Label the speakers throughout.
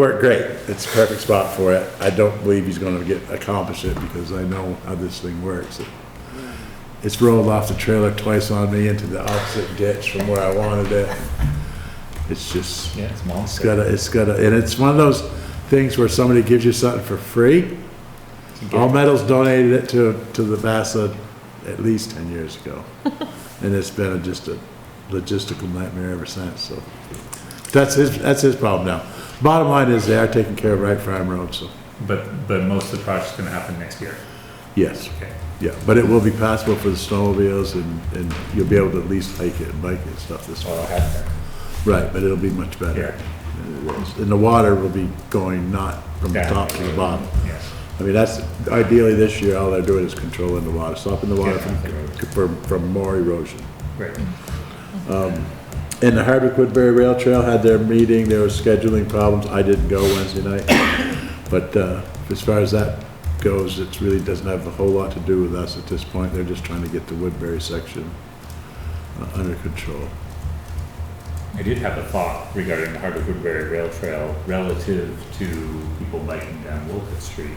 Speaker 1: Worked great. It's a perfect spot for it. I don't believe he's gonna get, accomplish it because I know how this thing works. It's rolled off the trailer twice on me into the opposite ditch from where I wanted it. It's just,
Speaker 2: Yeah, it's
Speaker 1: it's
Speaker 2: monster.
Speaker 1: gotta, it's gotta, and it's one of those things where somebody gives you something for free. All Metals donated it to, to the VASA at least ten years ago. And it's been a- just a logistical nightmare ever since, so. That's his, that's his problem now. Bottom line is they are taking care of Wright Farm Road, so,
Speaker 3: But, but most of the project's gonna happen next year.
Speaker 1: yes,
Speaker 3: Okay.
Speaker 1: yeah. But it will be passable for the snowmobiles and, and you'll be able to at least hike it and bike it and stuff this fall.
Speaker 2: Well, it'll have to.
Speaker 1: Right, but it'll be much better. than it was. And the water will be going not from the
Speaker 3: Yeah.
Speaker 1: top to the bottom.
Speaker 3: Yes.
Speaker 1: I mean, that's, ideally this year, all they're doing is controlling the water, stopping the water
Speaker 3: Yeah, okay.
Speaker 1: from, from, from more erosion.
Speaker 3: Great.
Speaker 1: And the Hardwick Woodbury Rail Trail had their meeting, there were scheduling problems, I didn't go Wednesday night. But, uh, as far as that goes, it really doesn't have a whole lot to do with us at this point, they're just trying to get the Woodbury section uh, under control.
Speaker 3: I did have a thought regarding the Hardwick Woodbury Rail Trail relative to people biking down Wilkett Street.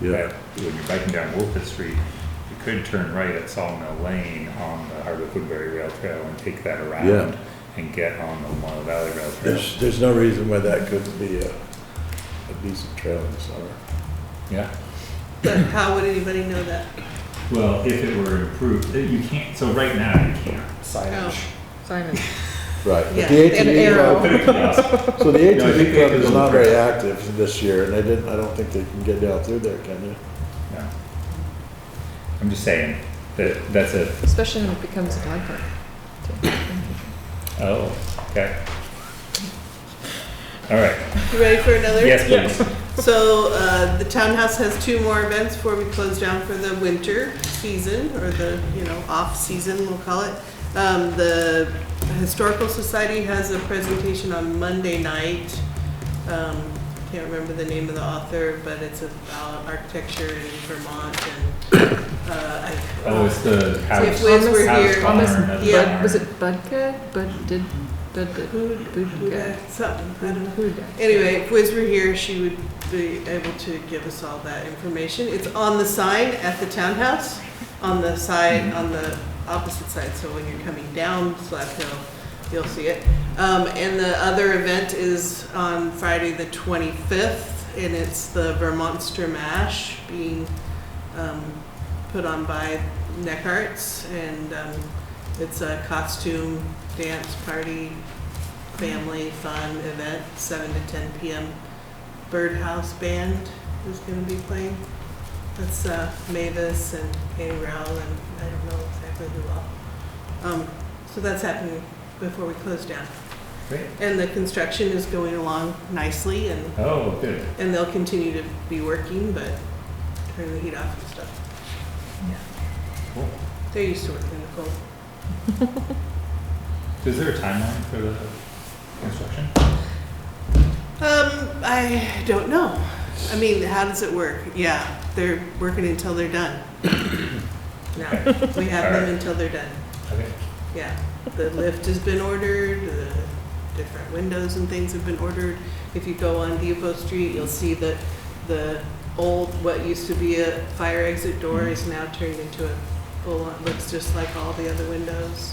Speaker 1: Yeah.
Speaker 3: And that, when you're biking down Wilkett Street, you could turn right at Sawmill Lane on the Hardwick Woodbury Rail Trail and take that
Speaker 1: Yeah.
Speaker 3: around and get on the Wild Valley Rail Trail.
Speaker 1: There's, there's no reason why that couldn't be a, a decent trail in the summer.
Speaker 3: Yeah.
Speaker 4: But how would anybody know that?
Speaker 3: Well, if it were improved, uh, you can't, so right now you can't.
Speaker 4: Oh,
Speaker 2: Signage.
Speaker 5: Simon.
Speaker 1: Right.
Speaker 4: Yeah, an arrow.
Speaker 3: Put a kiosk.
Speaker 1: So the
Speaker 3: No, I think
Speaker 1: ATV
Speaker 3: they
Speaker 1: club
Speaker 3: could
Speaker 1: is
Speaker 3: go
Speaker 1: not
Speaker 3: for it.
Speaker 1: very active this year, and they didn't, I don't think they can get down through there, can you?
Speaker 3: No. I'm just saying that that's a,
Speaker 5: Especially when it becomes a bike park.
Speaker 3: oh, okay. All right.
Speaker 4: You ready for another?
Speaker 3: Yes, please.
Speaker 4: So, uh, the townhouse has two more events before we close down for the winter season, or the, you know, off-season, we'll call it. Um, the Historical Society has a presentation on Monday night. Um, can't remember the name of the author, but it's about architecture in Vermont and, uh, I.
Speaker 3: Oh, it's the house.
Speaker 4: If Wiz were
Speaker 3: house
Speaker 4: here,
Speaker 3: barn,
Speaker 5: Thomas-
Speaker 3: another
Speaker 4: yeah,
Speaker 3: barn.
Speaker 5: Bud, was it Budka? Bud did, Bud did.
Speaker 4: Who, who,
Speaker 5: Budka.
Speaker 4: something, I don't know.
Speaker 5: Budka.
Speaker 4: Anyway, if Wiz were here, she would be able to give us all that information. It's on the sign at the townhouse, on the side, on the opposite side, so when you're coming down Slap Hill, you'll see it. Um, and the other event is on Friday, the twenty-fifth, and it's the Vermonster Mash being, um, put on by Neck Arts, and, um, it's a costume dance party family fun event, seven to ten PM. Birdhouse Band is gonna be playing. That's uh, Mavis and Katie Rowell and I don't know exactly who all. Um, so that's happening before we close down.
Speaker 3: Great.
Speaker 4: And the construction is going along nicely and,
Speaker 3: Oh, good.
Speaker 4: and they'll continue to be working, but turn the heat off and stuff.
Speaker 3: Cool.
Speaker 4: They're used to working in the cold.
Speaker 3: Is there a timeline for the construction?
Speaker 4: Um, I don't know. I mean, how does it work? Yeah, they're working until they're done. No, we have them until they're done.
Speaker 3: Okay.
Speaker 4: Yeah, the lift has been ordered, the different windows and things have been ordered. If you go on Depot Street, you'll see that the old, what used to be a fire exit door is now turned into a full-on, looks just like all the other windows.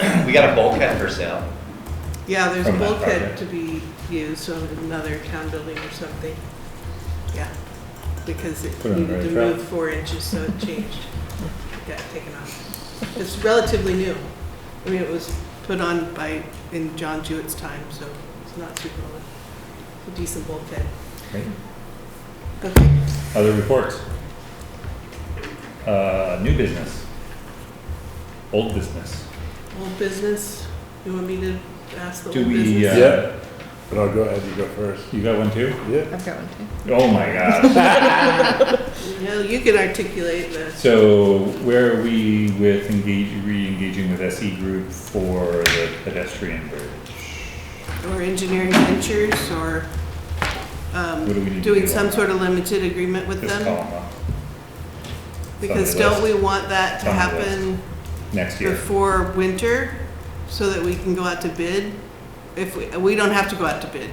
Speaker 2: We got a bulkhead for sale.
Speaker 4: Yeah, there's a
Speaker 3: From that
Speaker 4: bulkhead
Speaker 3: project.
Speaker 4: to be used on another town building or something. Yeah, because it
Speaker 3: Put it on the
Speaker 4: needed to
Speaker 3: right track.
Speaker 4: move four inches, so it changed. It Got taken off. It's relatively new. I mean, it was put on by, in John Jewett's time, so it's not super old. It's a decent bulkhead.
Speaker 3: Great.
Speaker 4: Okay.
Speaker 3: Other reports? Uh, new business? Old business?
Speaker 4: Old business, you want me to ask the
Speaker 3: Do
Speaker 4: old
Speaker 3: we,
Speaker 4: business?
Speaker 3: uh,
Speaker 1: Yeah. But I'll go ahead, you go first.
Speaker 3: you got one too?
Speaker 1: Yeah.
Speaker 5: I've got one too.
Speaker 3: Oh my gosh.
Speaker 4: Well, you can articulate the,
Speaker 3: So where are we with engage, re-engaging with SE Group for the pedestrian bridge?
Speaker 4: or engineering ventures, or, um,
Speaker 3: What do we need to do?
Speaker 4: doing some
Speaker 3: on
Speaker 4: sort of limited agreement with
Speaker 3: This
Speaker 4: them?
Speaker 3: column, uh, up.
Speaker 4: Because
Speaker 3: on the
Speaker 4: don't we want that to
Speaker 3: On the list.
Speaker 4: happen
Speaker 3: next year.
Speaker 4: before winter, so that we can go out to bid? If, we we don't have to go out to bid,